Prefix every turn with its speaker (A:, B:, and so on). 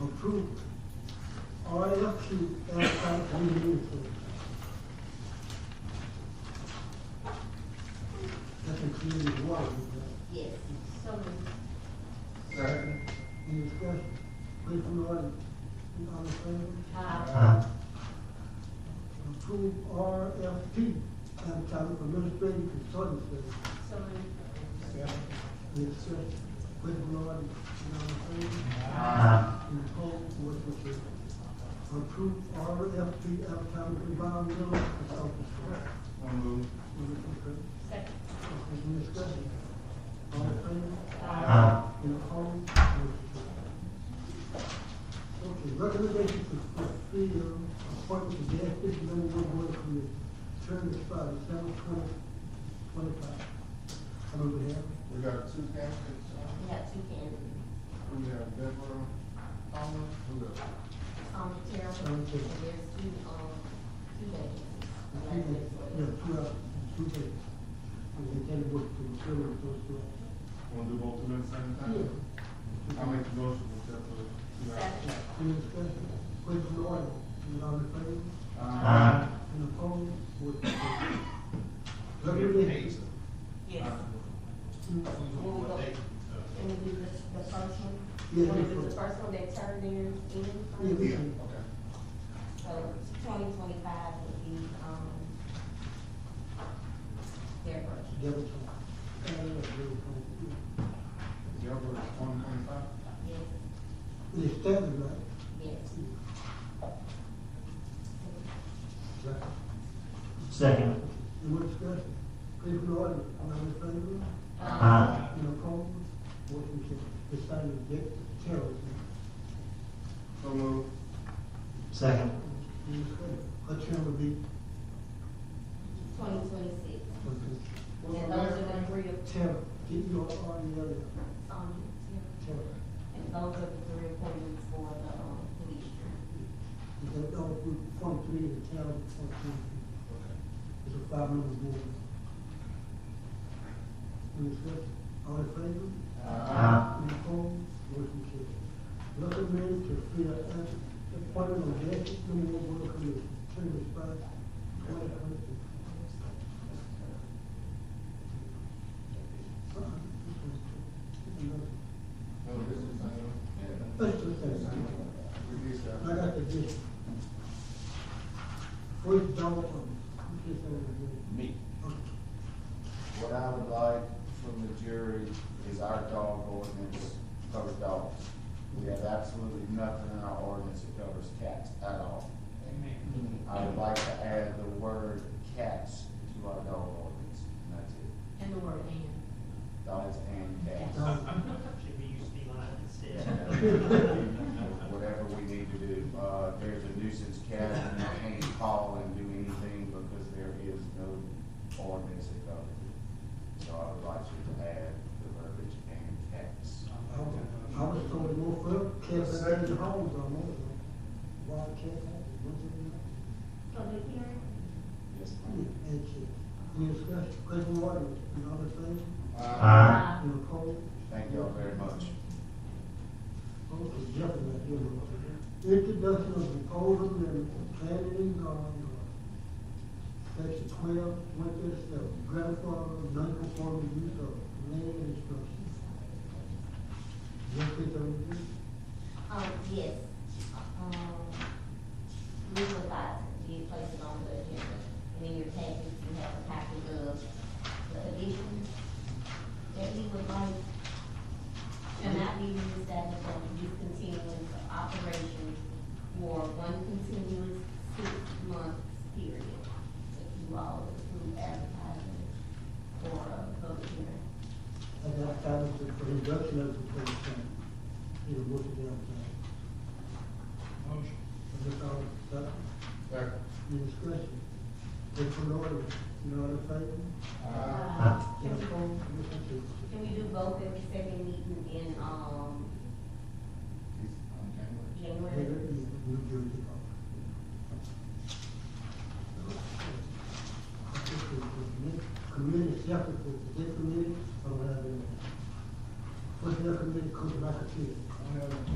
A: approved. Olha que essa minuto. That includes one, uh,
B: Yes, so moved.
C: Second.
A: any discussion? Please from the audience. All in favor?
B: Aye.
C: Aye.
A: Approve RFP, advertising for administrative consulting services.
B: So moved.
C: Second.
A: Any discussion? Please from the audience. All in favor?
C: Aye.
A: in whole with the approve RFP advertising for environmental consultants.
C: So moved.
B: Second.
A: Any discussion? All in favor?
C: Aye.
A: In opposed? Okay, recommendation to fulfill appointment to the Ethics Manager Board Committee, term expired seven twenty twenty-five. I move it here.
C: We got two candidates, uh,
B: We have two candidates,
C: we have Deborah Thomas, who else?
B: Tommy Terrell, Um,
A: Tommy
B: and there's
A: Terrell.
B: two, um, two vacancies.
A: Yeah, two, uh, two days. And then work to fill those two.
C: Wanna do both of them at the same time? I make the motion to accept the two applicants.
B: Second.
A: Any discussion? Please from the audience. Is all in favor?
C: Aye.
A: Any opposed? Four to zero.
C: Eight.
A: Recommendation.
B: Yes. Will we go- Can we do the, the first one?
A: Yeah, the
B: Want to do the
A: first.
B: first one that turned theirs in?
A: Yeah, we
C: Yeah,
A: can.
C: okay.
B: So twenty twenty-five would be, um, their first.
A: Devil time. Uh, devil time.
C: Deborah, one twenty-five?
B: Yes,
A: It is standard, right?
B: yes.
A: Right.
D: Second.
A: Any more discussion? Please from the audience. Is all in favor? Uh-huh.
B: Um,
D: Aye.
A: Any opposed? Four to zero. It's signed by Dick Terrell.
C: So moved.
D: Second.
A: Any discussion? Her term will be,
B: Twenty twenty-six.
A: okay.
C: What's her
B: And those are
C: last
B: the
C: name?
B: three of,
A: Terrell, D E R R E L L.
B: um,
A: Terrell.
B: and those are the three appointments for the, um, police.
A: That all group twenty-three in the town, twenty-three,
C: Okay.
A: is a five-member board. Any discussion? All in favor?
C: Aye.
D: Ah.
A: Any opposed? Motion carries. Recommended to fill an appointment on the ethics committee board committee, term expires twenty twenty-two.
C: No, this is, I know.
A: Let's do
C: This is, I know.
A: that.
C: We did that.
A: I got the gift. Where's Donald from? Who just over there?
E: Me.
A: Okay.
E: What I would like from the jury is our dog ordinance covers dogs. We have absolutely nothing in our ordinance that covers cats at all. I would like to add the word cats to our dog ordinance, and that's it.
B: And the word and.
E: Dogs and cats.
A: Donald.
F: Should we use feline instead?
E: Whatever we need to do. Uh, there's a nuisance cat, and I can't call and do anything because there is no ordinance that covers it. So I would like you to add the verbiage and cats.
A: I was- I was told to go for cats that had the homes on it. Wild cats, what's it called?
B: Public hearing?
E: Yes,
A: And cats. Any discussion, question, water, you know what I'm saying?
C: Aye.
A: You know, cold,
E: Thank y'all very much.
A: cold is definitely not doing it. Introduction of proposed amendment to planning and zoning law. Section twelve, one thirty-seven, grandfather, non-conforming use of land and structure. Yes, it's on you.
B: Um, yes, um, we would like to be placed on the agenda. And in your package, you have a copy of the addition that we would like to not be reestablished on discontinuous operation for one continuous six-month period. If you all approve advertising for a public hearing.
A: And that time is for reduction of the proposed plan. You know, what you
F: Motion.
A: And that's all, that's,
C: Second.
A: your discretion. If you know, you know what I'm saying?
C: Aye.
B: Uh,
A: Uh, You know, cold, you know, it's-
B: Can we do both at the second meeting in, um,